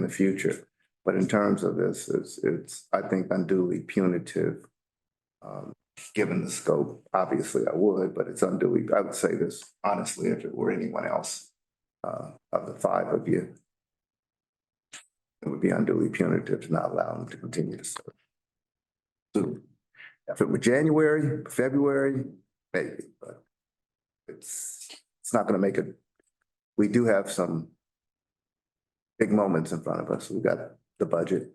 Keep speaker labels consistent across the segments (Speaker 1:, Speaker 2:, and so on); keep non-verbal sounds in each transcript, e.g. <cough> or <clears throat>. Speaker 1: in the future. But in terms of this, it's, it's, I think unduly punitive. Um, given the scope, obviously I would, but it's unduly, I would say this honestly, if it were anyone else, uh, of the five of you. It would be unduly punitive to not allow them to continue to serve. So if it were January, February, maybe, but it's, it's not gonna make it. We do have some big moments in front of us. We've got the budget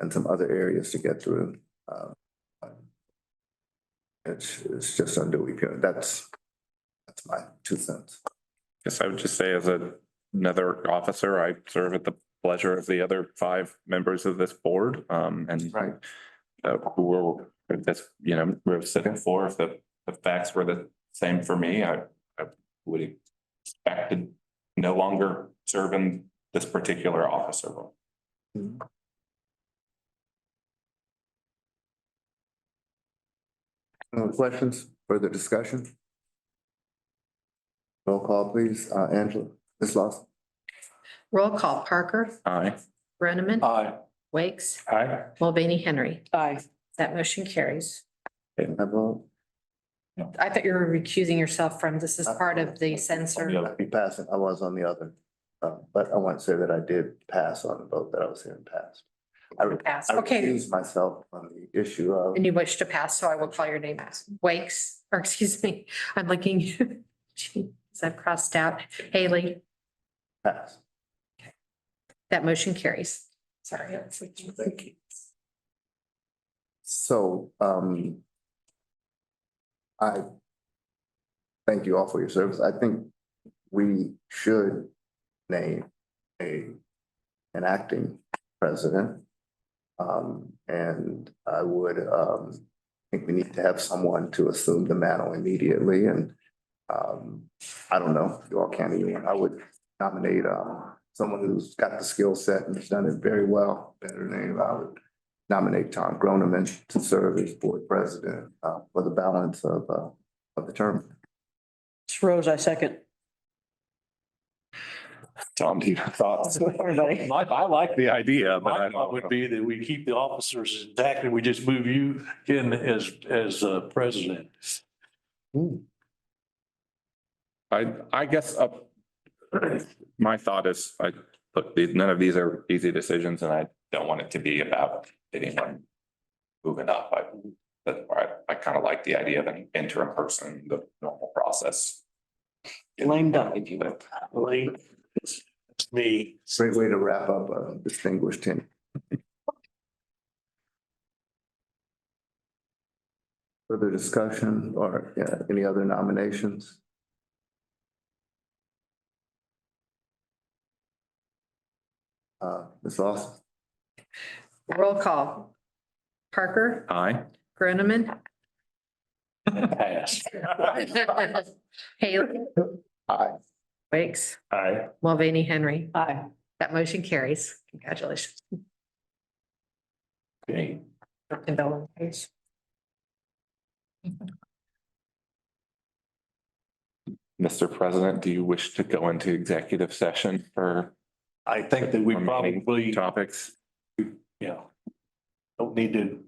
Speaker 1: and some other areas to get through. Um, It's, it's just unduly punitive. That's, that's my two cents.
Speaker 2: Yes, I would just say as a- another officer, I serve at the pleasure of the other five members of this board. Um, and
Speaker 1: Right.
Speaker 2: uh, who will, if that's, you know, we're sitting for, if the, the facts were the same for me, I, I would expect to no longer serve in this particular officer role.
Speaker 1: Any questions, further discussion? Roll call, please. Uh, Angela, Ms. Lawson.
Speaker 3: Roll call, Parker,
Speaker 2: Aye.
Speaker 3: Brenneman,
Speaker 2: Aye.
Speaker 3: Wakes,
Speaker 2: Aye.
Speaker 3: Mulvaney, Henry.
Speaker 4: Aye.
Speaker 3: That motion carries.
Speaker 1: I vote.
Speaker 3: I thought you were recusing yourself from, this is part of the censor.
Speaker 1: I'd be passing. I was on the other, uh, but I want to say that I did pass on the vote that I was hearing passed. I re-
Speaker 3: Pass,
Speaker 1: I
Speaker 3: okay.
Speaker 1: recused myself on the issue of,
Speaker 3: And you wish to pass, so I will call your name. Wakes, or excuse me, I'm looking, <laughs> geez, I've crossed out. Haley,
Speaker 1: pass.
Speaker 3: that motion carries. Sorry. I was looking.
Speaker 1: Thank you. So, um, I thank you all for your service. I think we should name a, an acting president. Um, and I would, um, think we need to have someone to assume the mantle immediately and, um, I don't know, you all can't even, I would nominate, um, someone who's got the skill set and has done it very well, better than anybody. I would nominate Tom Groneman to serve as board president, uh, for the balance of, uh, of the term.
Speaker 4: Rose, I second. <laughs>
Speaker 2: Tom, do you have thoughts?
Speaker 4: Everybody.
Speaker 5: I, I like the
Speaker 2: idea,
Speaker 5: My thought would be that we keep the officers intact and we just move you in as, as uh, president.
Speaker 2: I, I guess, uh, <clears throat> my thought is, I, look, these- none of these are easy decisions and I don't want it to be about anyone moving up. I, that's why I, I kind of like the idea of an interim person, the normal process.
Speaker 4: Lame duck, if you will.
Speaker 2: But
Speaker 5: Lane, it's it's me.
Speaker 1: Great way to wrap up a distinguished tenure. Further discussion or yeah, any other nominations? Uh, Ms. Lawson?
Speaker 3: Roll call. Parker,
Speaker 2: Aye.
Speaker 1: <laughs>
Speaker 3: Brenneman,
Speaker 5: Pass.
Speaker 3: Haley,
Speaker 1: Aye.
Speaker 3: Wakes,
Speaker 5: Aye.
Speaker 3: Mulvaney, Henry.
Speaker 4: Aye.
Speaker 3: That motion carries. Congratulations.
Speaker 5: Okay.
Speaker 3: And Bill and Paige.
Speaker 2: Mr. President, do you wish to go into executive session for
Speaker 5: I think that we probably,
Speaker 2: topics?
Speaker 5: yeah. Don't need to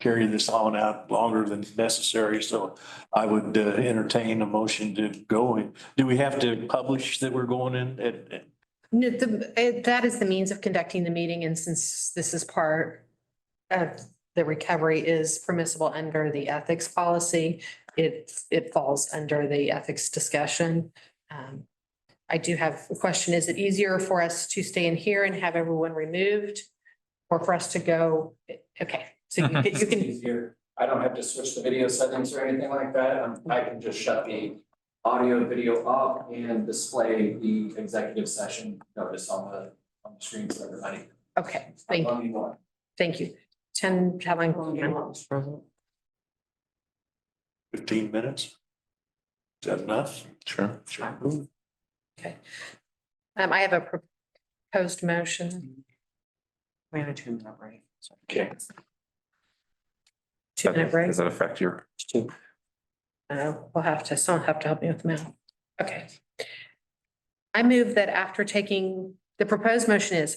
Speaker 5: carry this on out longer than necessary, so I would uh, entertain a motion to go in. Do we have to publish that we're going in at, at-
Speaker 3: No, the, it- that is the means of conducting the meeting, and since this is part of the recovery is permissible under the ethics policy, it, it falls under the ethics discussion. Um, I do have a question, is it easier for us to stay in here and have everyone removed? Or for us to go, okay, so you can- you <laughs> can,
Speaker 6: easier. I don't have to switch the video settings or anything like that. Um, I can just shut the audio and video off and display the executive session notice on the, on the screen for everybody.
Speaker 3: okay, thank,
Speaker 6: Only one.
Speaker 3: thank you. Ten, have I?
Speaker 5: fifteen minutes? Is that enough?
Speaker 2: Sure.
Speaker 5: Sure.
Speaker 3: Um, I have a proposed motion.
Speaker 4: We had a two minute break.
Speaker 5: Okay.
Speaker 3: Two minute break.
Speaker 2: Does that affect your?
Speaker 3: Uh, we'll have to, someone have to help me with the math. Okay. I move that after taking, the proposed motion is,